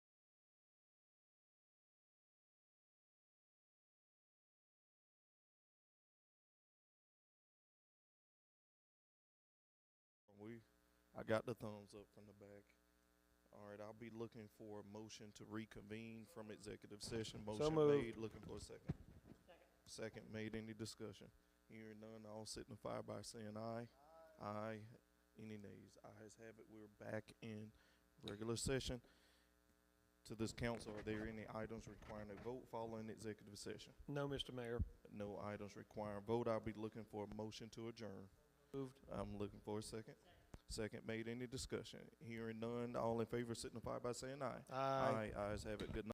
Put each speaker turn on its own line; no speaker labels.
I got the thumbs up from the back. All right, I'll be looking for a motion to reconvene from executive session. Motion
moved.
made, looking for a second. Second made, any discussion? Hearing none, all signify by saying aye. Aye. Any nays? Ayes have it, we're back in regular session. To this council, are there any items requiring a vote following executive session?
No, Mr. Mayor.
No items requiring vote, I'll be looking for a motion to adjourn.
Moved.
I'm looking for a second. Second made, any discussion? Hearing none, all in favor signify by saying aye. Aye, ayes have it, good night.